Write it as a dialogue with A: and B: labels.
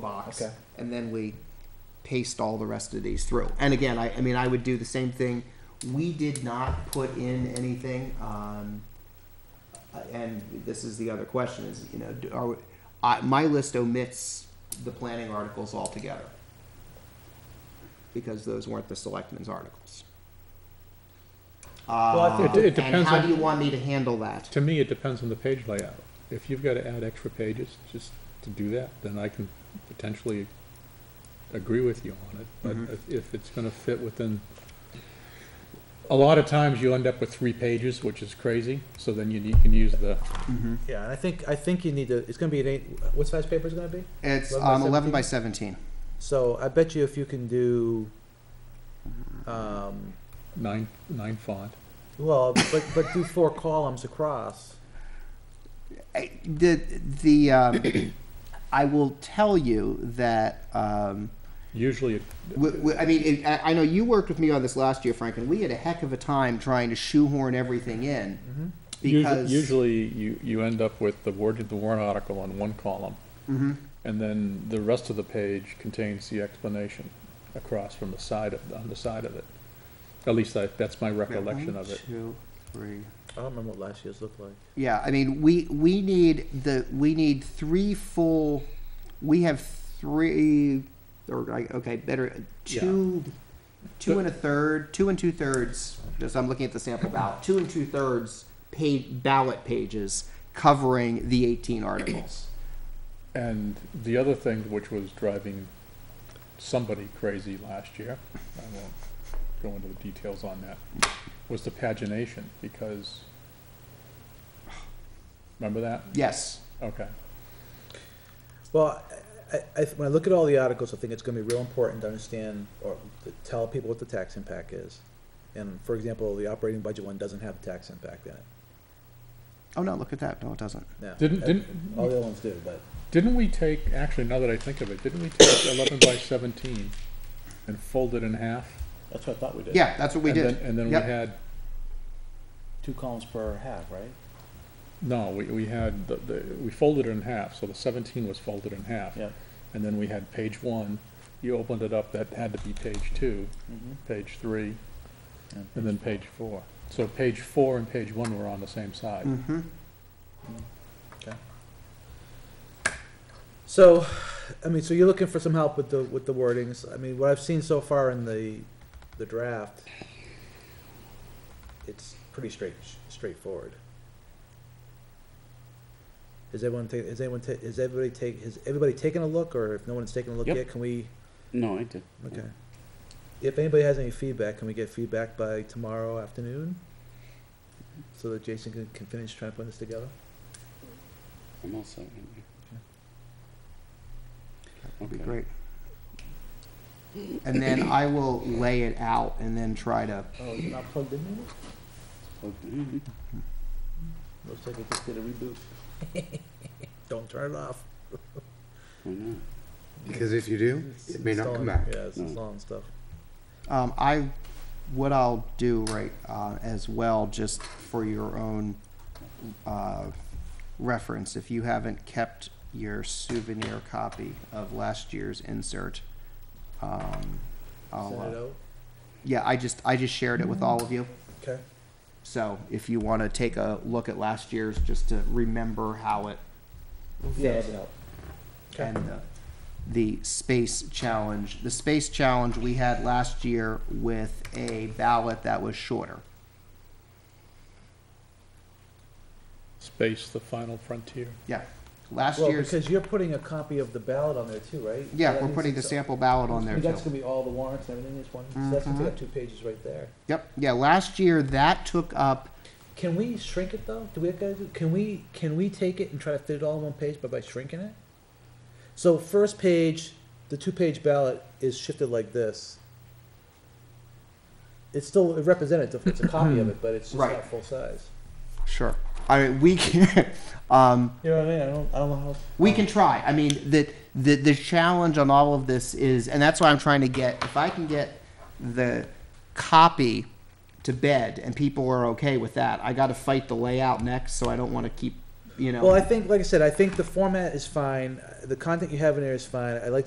A: box.
B: Okay.
A: And then we paste all the rest of these through. And again, I, I mean, I would do the same thing. We did not put in anything, um, uh, and this is the other question is, you know, do- are, we- I, my list omits the planning articles altogether. Because those weren't the selectmen's articles.
B: I think-
A: Uh,
B: It- it
A: And
B: depends
A: how
B: on-
A: do you want me to handle that?
B: To me, it depends on the page layout. If you've got to add extra pages just to do that, then I can potentially agree with you on it. But if- if it's gonna fit within, a lot of times you end up with three pages, which is crazy, so then you need- can use the,
C: Yeah, and I think, I think you need to, it's gonna be an eight, what size paper is it gonna be?
A: It's,
C: 11 by
A: um, eleven by seventeen.
C: So I bet you if you can do, um,
B: nine, nine font.
C: well, but, but do four columns across.
A: I- the the um, I will tell you that um,
B: Usually, it-
A: w- w- I mean it, I I know you worked with me on this last year, Frank, and we had a heck of a time trying to shoehorn everything in
B: Mm-hmm. usu-
A: because
B: usually you, you end up with the word of the warrant article on one column. And then the rest of the page contains the explanation across from the side of, on the side of it. At least I, that's my recollection
A: One,
B: of it.
A: two, three.
C: I don't remember what last year's looked like.
A: Yeah, I mean we we need the we need three full. We have three or I- okay better two. Two and a third, two and two thirds. Just I'm looking at the sample ballot. Two and two thirds paid ballot pages covering the 18 articles.
B: And the other thing which was driving somebody crazy last year, I won't go into the details on that, was the pagination, because, remember that?
A: Yes.
B: Okay.
C: Well, I, I, I- when I look at all the articles, I think it's gonna be real important to understand or to tell people what the tax impact is. And for example, the operating budget one doesn't have a tax impact in it.
A: Oh no, look at that. No, it doesn't.
C: No.
B: Didn't-
C: Uh,
B: didn't-
C: All the other ones do, but.
B: Didn't we take, actually, now that I think of it, didn't we take eleven by seventeen and fold it in half?
C: That's what I thought we did.
A: Yeah, that's what we
B: And
A: did.
B: then- And then we
A: Yep.
B: had,
C: Two columns per half, right?
B: no, we, we had, the, the, we folded it in half, so the seventeen was folded in half.
C: Yep.
B: And then we had page one, you opened it up, that had to be page two,
C: Mm-hmm.
B: page three, and then page four. So page four and page one were on the same side.
A: Mm. Mm-hmm.
C: So, I mean, so you're looking for some help with the, with the wordings. I mean, what I've seen so far in the, the draft, it's pretty straight, straightforward. Is everyone ta, is anyone ta, is everybody take, has everybody taken a look, or if no one's taken a look
D: Yep.
C: yet, can we,
D: No, I did.
C: okay. If anybody has any feedback, can we get feedback by tomorrow afternoon? So that Jason can, can finish trying to put this together?
D: I'm also.
A: Be great. And then I will lay it out and then try to.
C: Oh, is it not plugged in yet?
D: Okay. Mm-hmm.
C: Looks like it just did a reboot. Don't turn it off.
D: Why not?
E: Because if you do, it may not come
C: Installing-
E: back.
C: Yeah, it's
A: Hmm.
C: installing stuff.
A: Um, I, what I'll do right uh, as well, just for your own uh, reference, if you haven't kept your souvenir copy of last year's insert, um, I'll,
C: Send it
A: uh,
C: out.
A: yeah, I just I just shared it with all of you.
C: Okay.
A: So if you want to take a look at last year's, just to remember how it
C: Yeah. Okay.
A: and the, the space challenge. The space challenge we had last year with a ballot that was shorter.
B: Space, the final frontier.
A: Yeah, last
C: Well,
A: year's,
C: because you're putting a copy of the ballot on there too, right?
A: yeah,
C: That
A: we're
C: means
A: putting the
C: it's-
A: sample ballot on there
C: That's
A: too. Mm-hmm.
C: gonna be all the warrants and everything, is one, so that's gonna take up two pages right there.
A: Yep, yeah, last year that took up,
C: Can we shrink it though? Do we have to, do- can we, can we take it and try to fit it all in one page, but by shrinking it? So first page, the two-page ballot is shifted like this. It's still representative, it's a copy of it, but it's just
A: Right.
C: not full size.
A: sure, I, mean, we can, um,
C: You know what I mean? I don't, I don't know how.
A: We can try. I mean, the, the, the challenge on all of this is, and that's why I'm trying to get, if I can get the copy to bed and people are okay with that, I gotta fight the layout next, so I don't wanna keep you know.
C: Well, I think, like I said, I think the format is fine, the content you have in there is fine, I like